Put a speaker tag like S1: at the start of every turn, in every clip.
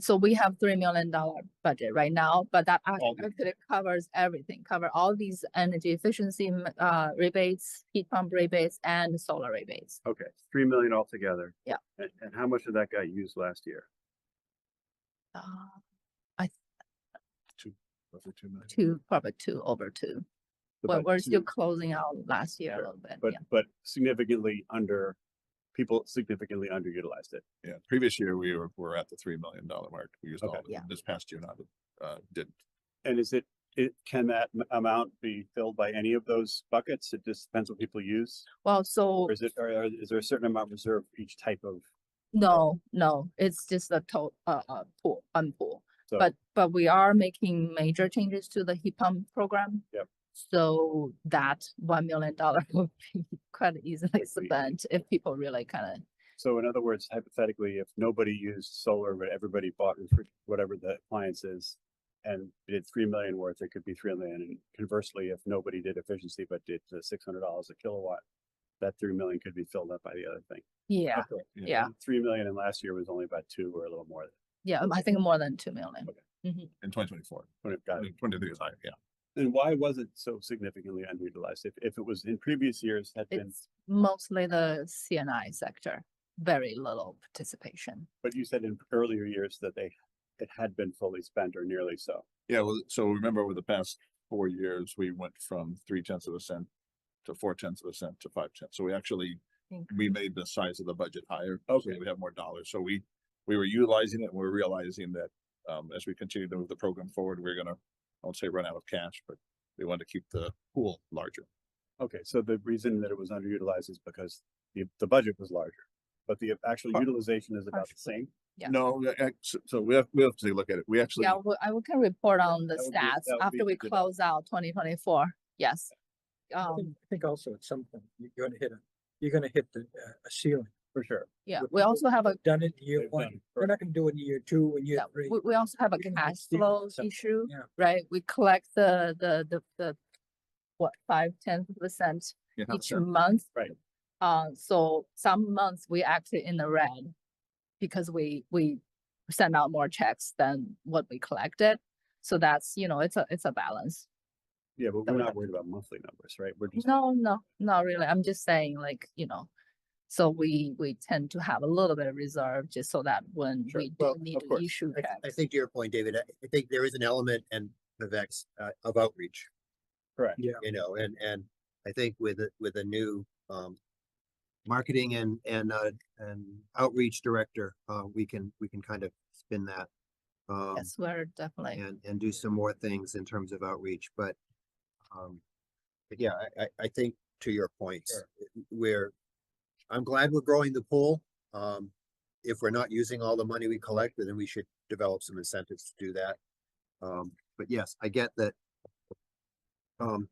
S1: so we have three million dollar budget right now, but that ac-
S2: Okay.
S1: actually covers everything, cover all these energy efficiency m- uh rebates, heat pump rebates and solar rebates.
S2: Okay, three million altogether.
S1: Yeah.
S2: And, and how much of that got used last year?
S1: Uh,
S2: Roughly two million.
S1: two, probably two over two. But we're still closing out last year a
S2: Sure,
S1: little bit,
S2: But,
S1: yeah.
S2: but significantly under, people significantly underutilized it.
S3: Yeah, previous year we were, were at the three million dollar mark. We used all
S2: Okay.
S3: of it.
S1: Yeah.
S3: This past year, not, uh, didn't.
S2: And is it, it, can that m- amount be filled by any of those buckets? It just depends what people use?
S1: Well, so,
S2: Or is it, or or is there a certain amount reserved for each type of?
S1: no, no, it's just a total uh, uh, pool, unpool.
S2: So-
S1: But, but we are making major changes to the heat pump program.
S2: Yep.
S1: So that one million dollar would be quite easily
S2: Quickly.
S1: spent if people really kind of
S2: So in other words, hypothetically, if nobody used solar, but everybody bought refri- whatever the appliance is and did three million worth, it could be three million. And conversely, if nobody did efficiency, but did the six hundred dollars a kilowatt, that three million could be filled up by the other thing.
S1: Yeah,
S2: Okay,
S3: you know,
S1: yeah,
S2: and Three million and last year was only about two or a little more.
S1: yeah, um, I think more than two million.
S2: Okay.
S1: Mhm.
S3: In twenty twenty-four,
S2: Would have got it.
S3: twenty-three is higher, yeah.
S2: And why was it so significantly underutilized? If, if it was in previous years had been,
S1: It's mostly the CNI sector, very little participation.
S2: but you said in earlier years that they, it had been fully spent or nearly so.
S3: Yeah, well, so remember over the past four years, we went from three tenths of a cent to four tenths of a cent to five tenths. So we actually, we made the size of the budget higher. so
S2: Okay.
S3: that We have more dollars. So we, we were utilizing it. and We're realizing that, um, as we continue to move the program forward, we're gonna, I won't say run out of cash, but we want to keep the pool larger.
S2: Okay, so the reason that it was underutilized is because the, the budget was larger, but the actual
S3: Par-
S2: utilization is about the
S1: partially.
S2: same.
S1: Yeah.
S3: No, we ac- so- so we have, we have to look at it. We actually.
S1: Yeah, we- I will can report on the
S2: that would be-
S1: stats
S2: that would be
S1: after we
S2: good.
S1: close out twenty twenty-four, yes.
S4: I think,
S1: Um,
S4: I think also at some point, you're gonna hit a, you're gonna hit the, uh, a ceiling.
S2: For sure.
S1: yeah,
S4: We've
S1: we also have a,
S4: Done it in year
S2: They've done
S4: one.
S2: it
S4: We're not gonna do it in year two and year
S1: yeah,
S4: three.
S1: we, we also have a
S4: you can
S1: cash
S4: see
S1: flow
S4: some-
S1: issue,
S4: yeah.
S1: right? We collect the, the, the, the, what, five, ten percent
S3: Yeah,
S1: each
S3: so-
S1: month.
S2: Right.
S1: Uh, so some months we actually in the red because we, we send out more checks than what we collected. So that's, you know, it's a, it's a balance.
S2: Yeah, but
S1: That
S2: we're
S1: would
S2: not
S1: have Mm-hmm.
S2: worried about monthly numbers, right? We're just,
S1: No, no, not really. I'm just saying like, you know, so we, we tend to have a little bit of reserve just so that when
S2: Sure.
S1: we do
S5: Well,
S1: need
S2: of
S1: to
S2: course.
S1: issue
S5: I, th- I
S1: checks.
S5: think to your point, David, I I think there is an element and Vivek's uh, of outreach,
S2: correct.
S4: Yeah.
S5: you know, and, and I think with, a- with a new, um, marketing and, and, uh, and outreach director, uh, we can, we can kind of spin that. Um,
S1: Yes, we're definitely,
S5: and, and do some more things in terms of outreach, but, um, but yeah, I, I, I think to your points,
S4: Sure.
S5: w- we're, I'm glad we're growing the pool. Um, if we're not using all the money we collect, then we should develop some incentives to do that. Um, but yes, I get that. Um,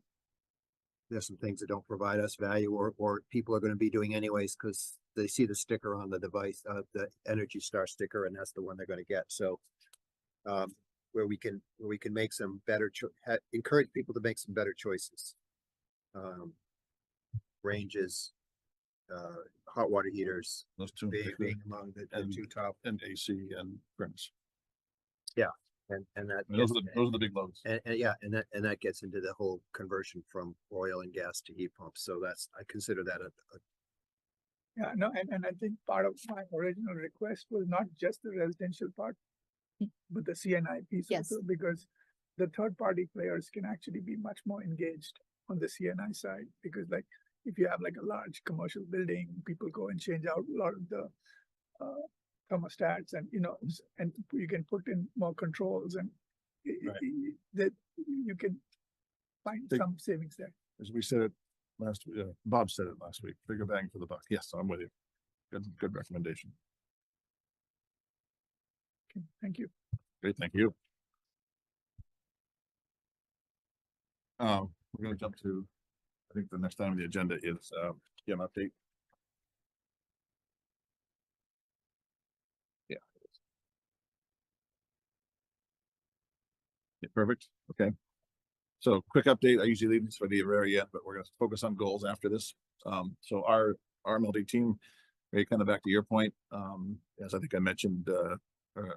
S5: there's some things that don't provide us value or, or people are gonna be doing anyways, cause they see the sticker on the device, uh, the Energy Star sticker, and that's the one they're gonna get, so. Um, where we can, where we can make some better cho- ha- encourage people to make some better choices. Um, ranges, uh, hot water heaters,
S3: Those two.
S5: being, being among the, the
S3: and-
S5: two top,
S3: And AC and Grims.
S5: and, and that.
S3: I mean, Those
S5: gets-
S3: are the, those are the big loads.
S5: And, and yeah, and that, and that gets into the whole conversion from oil and gas to heat pumps, so that's, I consider that a, a
S6: Yeah, no, and, and I think part of my original request was not just the residential part,
S1: Mm.
S6: but the CNI piece
S1: Yes.
S6: also, because the third party players can actually be much more engaged on the CNI side, because like, if you have like a large commercial building, people go and change out a lot of the uh, thermostats and, you know, s- and you can put in more controls and i- i-
S2: Right.
S6: i- that you can find
S3: They-
S6: some savings there.
S3: As we said it last, uh, Bob said it last week, bigger bang for the buck. Yes, I'm with you. Good, good recommendation.
S6: Okay, Thank you.
S3: Great, thank you. Um, we're gonna jump to, I think the next item on the agenda is, um, GM update. Yeah. it is. Yeah, perfect, okay. So quick update, I usually leave this for the very end, but we're gonna focus on goals after this. Um, so our, our MLD team, Ray, kind of back to your point, um, as I think I mentioned, uh, ear-